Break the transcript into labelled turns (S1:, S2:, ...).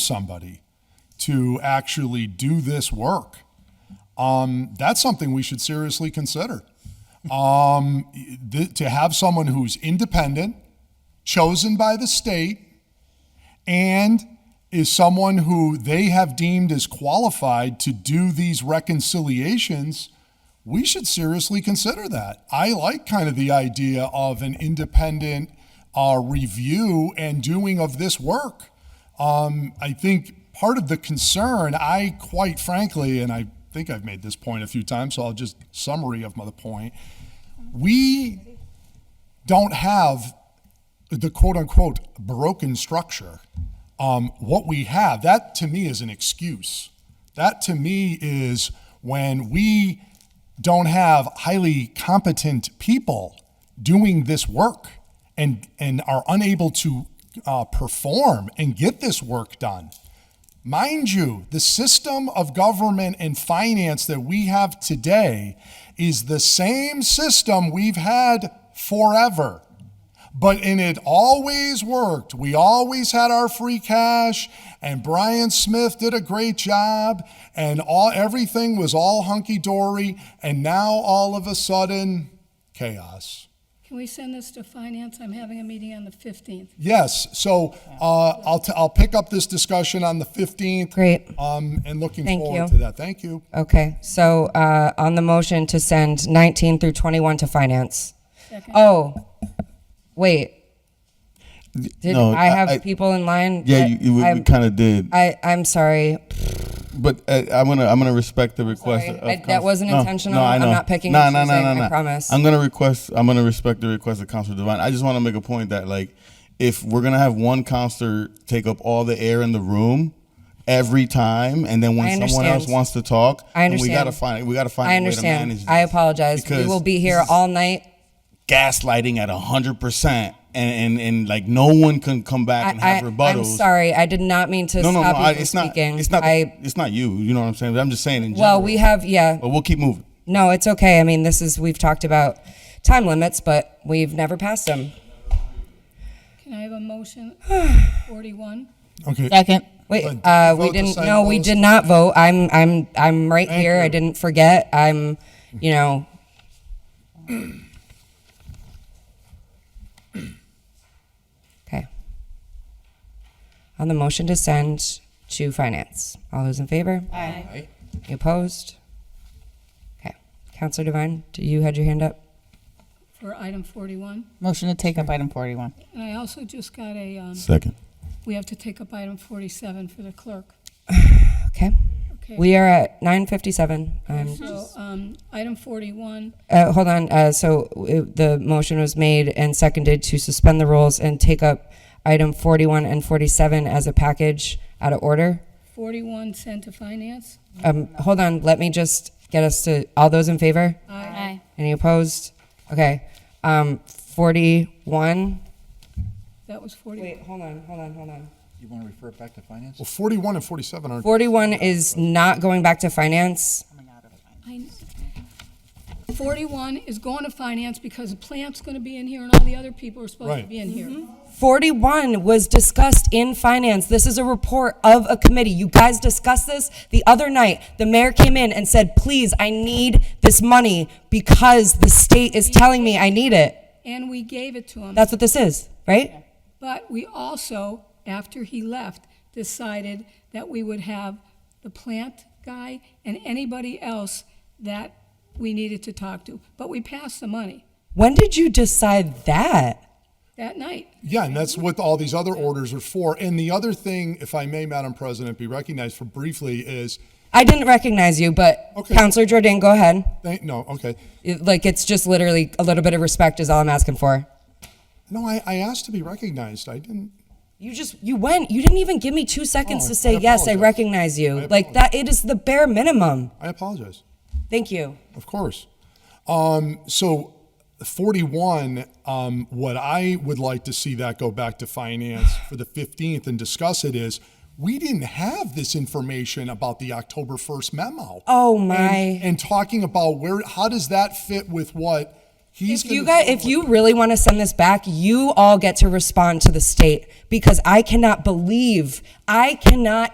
S1: somebody to actually do this work. Um, that's something we should seriously consider. Um, th- to have someone who's independent, chosen by the state, and is someone who they have deemed as qualified to do these reconciliations, we should seriously consider that. I like kind of the idea of an independent uh, review and doing of this work. Um, I think part of the concern, I quite frankly, and I think I've made this point a few times, so I'll just summary of my point. We don't have the quote unquote broken structure. Um, what we have, that to me is an excuse. That to me is when we don't have highly competent people doing this work and, and are unable to uh, perform and get this work done. Mind you, the system of government and finance that we have today is the same system we've had forever. But in it always worked. We always had our free cash, and Brian Smith did a great job, and all everything was all hunky dory. And now all of a sudden, chaos.
S2: Can we send this to finance? I'm having a meeting on the 15th.
S1: Yes. So uh, I'll t- I'll pick up this discussion on the fifteenth.
S3: Great.
S1: Um, and looking
S3: Thank
S1: forward to
S3: you.
S1: that. Thank you.
S3: Okay, so uh, on the motion to send 19 through 21 to finance.
S2: Second.
S3: Oh, wait. Did
S4: no,
S3: I have
S4: I- I-
S3: people in line?
S4: Yeah,
S3: that
S4: you, you,
S3: I'm-
S4: kind of did,
S3: I, I'm sorry.
S4: but uh, I'm gonna I'm gonna respect the request.
S3: sorry.
S4: of
S3: I- that
S4: Council-
S3: wasn't intentional.
S4: I
S3: I'm
S4: know.
S3: not picking
S4: Nah,
S3: and
S4: nah, nah,
S3: choosing,
S4: nah,
S3: I
S4: nah.
S3: promise.
S4: I'm gonna request. I'm gonna respect the request of Councilor Devine. I just want to make a point that like, if we're gonna have one counselor take up all the air in the room every time, and
S3: I
S4: then when someone else
S3: understand.
S4: wants to talk,
S3: I
S4: then
S3: understand.
S4: we gotta find we gotta find
S3: I
S4: a way to
S3: understand.
S4: manage. This.
S3: I apologize. We
S4: Because
S3: will be
S4: this
S3: here
S4: is-
S3: all night.
S4: gaslighting at hundred percent, and and and like no one can come back and
S3: I,
S4: have
S3: I,
S4: rebuttals.
S3: am sorry. I did not mean to
S4: No, no, no.
S3: stop
S4: I,
S3: you from
S4: it's not.
S3: speaking.
S4: It's not.
S3: I,
S4: it's not you. You know what I'm saying. I'm just saying. In general.
S3: well, we have, yeah.
S4: But we'll keep moving.
S3: No, it's okay. I mean, this is, we've talked about time limits, but we've never passed them.
S2: Can I have a motion 41?
S1: Okay.
S5: Second.
S3: Wait,
S1: But did
S3: uh,
S1: you vote
S3: we
S1: to
S3: didn't.
S1: sign
S3: No, we
S1: those?
S3: did not vote. I'm, I'm, I'm right here. I
S1: you.
S3: didn't forget. I'm, you know, okay. On the motion to send to finance, all those in favor? Aye. You opposed? Okay, Counselor Devine, do you had your hand up?
S2: For item 41?
S5: Motion to take up item 41.
S2: And I also just got a, um,
S4: Second.
S2: we have to take up item 47 for the clerk.
S3: Okay,
S2: Okay.
S3: we are at nine fifty-seven. Um,
S2: So, um, item 41,
S3: Uh, hold on, uh, so uh, the motion was made and seconded to suspend the rules and take up item forty-one and forty-seven as a package out of order.
S2: 41 sent to finance?
S3: Um, hold on, let me just get us to, all those in favor?
S2: Aye.
S3: Any opposed? Okay, um, forty-one.
S2: That was 41.
S3: Wait, hold on, hold on, hold on.
S6: You want to refer it back to finance?
S1: Well, forty-one and forty-seven are.
S3: Forty-one is not going back to finance.
S2: I- 41 is going to finance because the plant's going to be in here and all the other people are supposed to
S1: Right.
S2: be in here.
S3: 41 was discussed in finance. This is a report of a committee. You guys discussed this the other night. The mayor came in and said, please, I need this money because the state is telling me I need it.
S2: And we gave it to them.
S3: That's what this is, right?
S2: But we also, after he left, decided that we would have the plant guy and anybody else that we needed to talk to. But we passed the money
S3: When did you decide that?
S2: that night.
S1: Yeah, and that's what all these other orders are for. And the other thing, if I may, Madam President, be recognized for briefly is,
S3: I didn't recognize you, but
S1: Okay.
S3: Counselor Jordan, go ahead.
S1: thank, no, okay.
S3: It- Like, it's just literally a little bit of respect is all I'm asking for.
S1: No, I, I asked to be recognized. I didn't.
S3: You just, you went, you didn't even give me two seconds
S1: Oh,
S3: to
S1: I
S3: say, yes, I
S1: apologize.
S3: recognize you. Like, that, it is the bare minimum.
S1: I apologize.
S3: Thank you.
S1: Of course. Um, so 41, um, what I would like to see that go back to finance for the 15th and discuss it is we didn't have this information about the October 1st memo.
S3: Oh, my.
S1: And, and talking about where, how does that fit with what He's
S3: If you
S1: gonna
S3: guys,
S1: deal
S3: if
S1: with
S3: you really want to send this back, you all get to respond to the state because I cannot believe, I cannot